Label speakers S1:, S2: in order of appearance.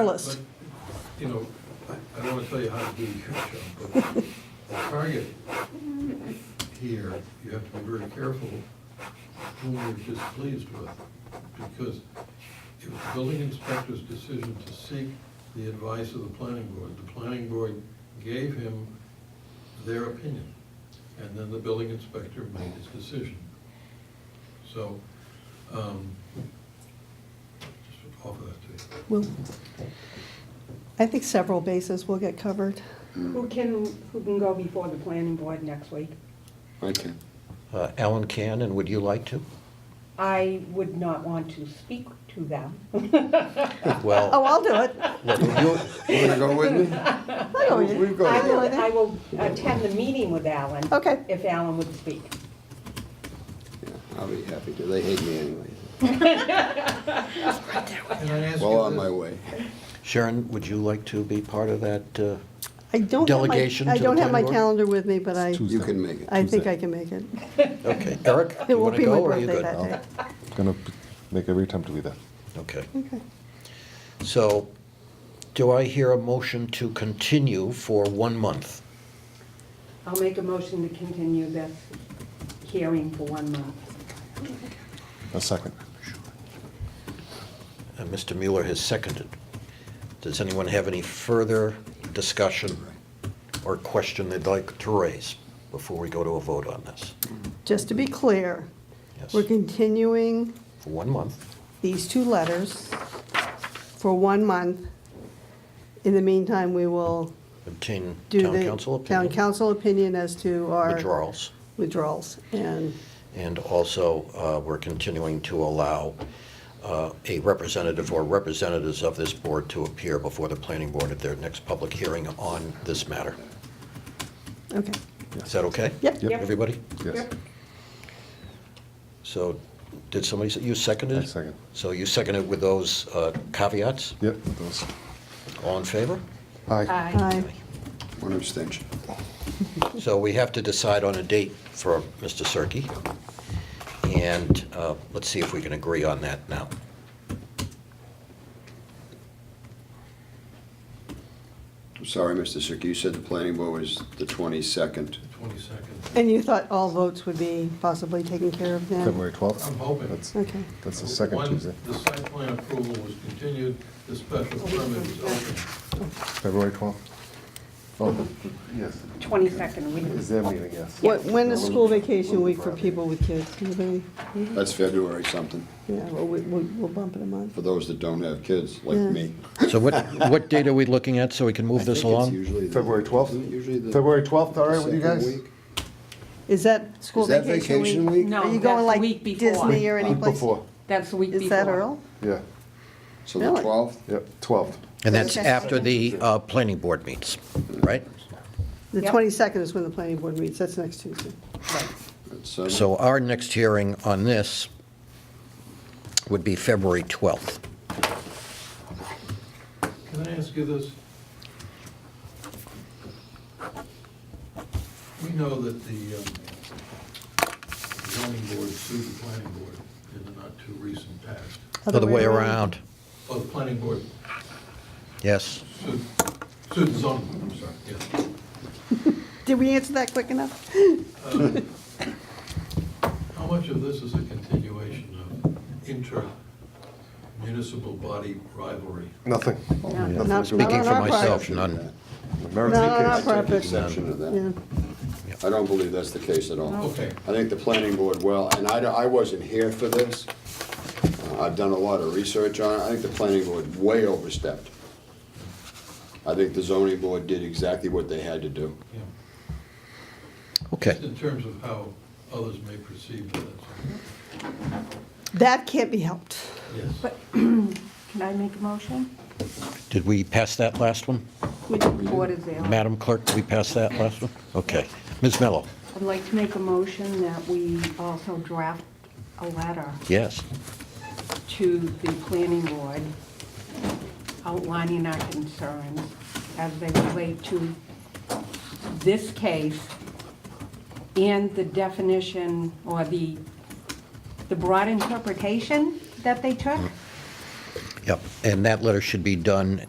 S1: Careless.
S2: But, You know, I I don't want to tell you how to do your job, but the target here, you have to be very careful whom you're displeased with, because it was the building inspector's decision to seek the advice of the planning board. The planning board gave him their opinion, and then the building inspector made his decision. So, um, just offer that to you.
S1: We'll- I think several bases will get covered.
S3: Who can, who can go before the planning board next week?
S4: I can.
S5: Uh, Alan can, and would you like to?
S3: I would not want to speak to them.
S1: Oh,
S5: Well,
S1: I'll do it.
S5: look, you,
S4: You wanna go with me?
S1: I know you-
S4: We've got
S3: I
S1: I know
S3: will, I
S1: that.
S3: will attend the meeting with Alan.
S1: Okay.
S3: If Alan would speak.
S4: Yeah, I'll be happy to. They hate me anyway.
S2: Can I ask you
S4: Well, on
S2: this?
S4: my way.
S5: Sharon, would you like to be part of that? uh,
S1: I don't have my-
S5: Delegation
S1: I
S5: to the
S1: don't have my
S5: planning board?
S1: calendar with me, but I,
S4: You can make it.
S1: I think I can make it.
S5: Okay, Eric,
S1: It
S5: you
S1: won't
S5: want to
S1: be my
S5: go, or are you
S1: birthday
S5: good?
S1: that day.
S6: Gonna p- make every attempt to be there.
S5: Okay,
S1: Okay.
S5: so do I hear a motion to continue for one month?
S3: I'll make a motion to continue this hearing for one month.
S6: A second.
S5: And Uh, Mr. Mueller has seconded. Does anyone have any further discussion or question they'd like to raise before we go to a vote on this?
S1: Just to be clear,
S5: Yes,
S1: we're continuing
S5: for one month.
S1: these two letters for one month. In the meantime, we will
S5: Obtain
S1: do
S5: town
S1: the
S5: council
S1: town
S5: opinion,
S1: council opinion as to our
S5: withdrawals.
S1: withdrawals. And
S5: And also, uh, we're continuing to allow uh, a representative or representatives of this board to appear before the planning board at their next public hearing on this matter.
S1: okay,
S5: Is that okay?
S1: Yep.
S6: Yep.
S5: Everybody?
S6: Yes.
S5: So, did somebody, say- you seconded?
S6: I second.
S5: So you seconded with those uh, caveats?
S6: Yep, those.
S5: All in favor?
S6: Aye.
S3: Aye.
S7: Uh,
S1: aye.
S4: One abstention.
S5: So we have to decide on a date for Mr. Cirque. And uh, let's see if we can agree on that now.
S4: I'm sorry, Mr. Sick. You said the planning board was the twenty-second.
S2: Twenty-second.
S1: And you thought all votes would be possibly taken care of then?
S6: February 12th.
S2: I'm hoping.
S6: That's,
S1: Okay.
S6: that's the second Tuesday.
S2: The site plan approval was continued, the special permit was opened.
S6: February 12th. Oh, yes.
S3: Twenty-second
S6: Is
S3: week.
S6: their meeting, yes.
S1: What, when is school vacation week for people with kids? Anybody?
S4: That's February something,
S1: Yeah, well, we- we'll, we'll bump it a month.
S4: for those that don't have kids, like
S1: Yeah.
S4: me.
S5: So what, what date are we looking at so we can move this
S4: I think it's
S5: along?
S4: usually the-
S6: February 12th?
S4: isn't it Usually the.
S6: February 12th, all right with you
S4: second
S6: guys?
S4: week?
S1: Is that school
S4: Is that
S1: vacation week?
S4: vacation week?
S1: Are
S7: No,
S1: you
S7: that's
S1: going
S7: the
S1: like
S7: week before.
S1: Disney or any
S6: Week
S1: place?
S6: Before,
S7: That's the week before.
S1: Is that Earl?
S6: yeah,
S4: So the
S1: Really?
S4: twelfth?
S6: yep, 12th.
S5: And that's
S1: Okay.
S5: after the uh, planning board meets, right?
S1: The
S7: Yep.
S1: 22nd is when the planning board meets, that's next Tuesday.
S4: So
S5: So our next hearing on this would be February 12th.
S2: Can I ask you this? We know that the um, zoning board sued the planning board in the not-too-recent past.
S5: Other way around,
S2: Oh, the planning board
S5: yes.
S2: sued, sued the zoning board, I'm sorry, yeah.
S1: Did we answer that quick enough?
S2: How much of this is a continuation of inter-municipal body rivalry?
S6: Nothing.
S1: Not- not on
S5: Speaking for
S1: our part.
S5: myself, none.
S6: The
S1: No, no,
S6: Merrimack
S1: not
S6: case.
S1: proper.
S4: Exception of
S1: Yeah.
S4: that. I don't believe that's the case at all.
S2: Okay.
S4: I think the planning board, well, and I, I wasn't here for this. Uh, I've done a lot of research on it. I think the planning board way overstepped. I think the zoning board did exactly what they had to do.
S2: Yeah.
S5: Okay,
S2: Just in terms of how others may perceive that.
S1: That can't be helped.
S2: Yes.
S7: Can I make a motion?
S5: did we pass that last one?
S7: Which board is there?
S5: Madam Clerk, did we pass that last one? Okay. Ms. Mello?
S7: I'd like to make a motion that we also draft a letter
S5: Yes.
S7: to the planning board outlining our concerns as they relate to this case and the definition or the, the broad interpretation that they took.
S5: Yep, And that letter should be done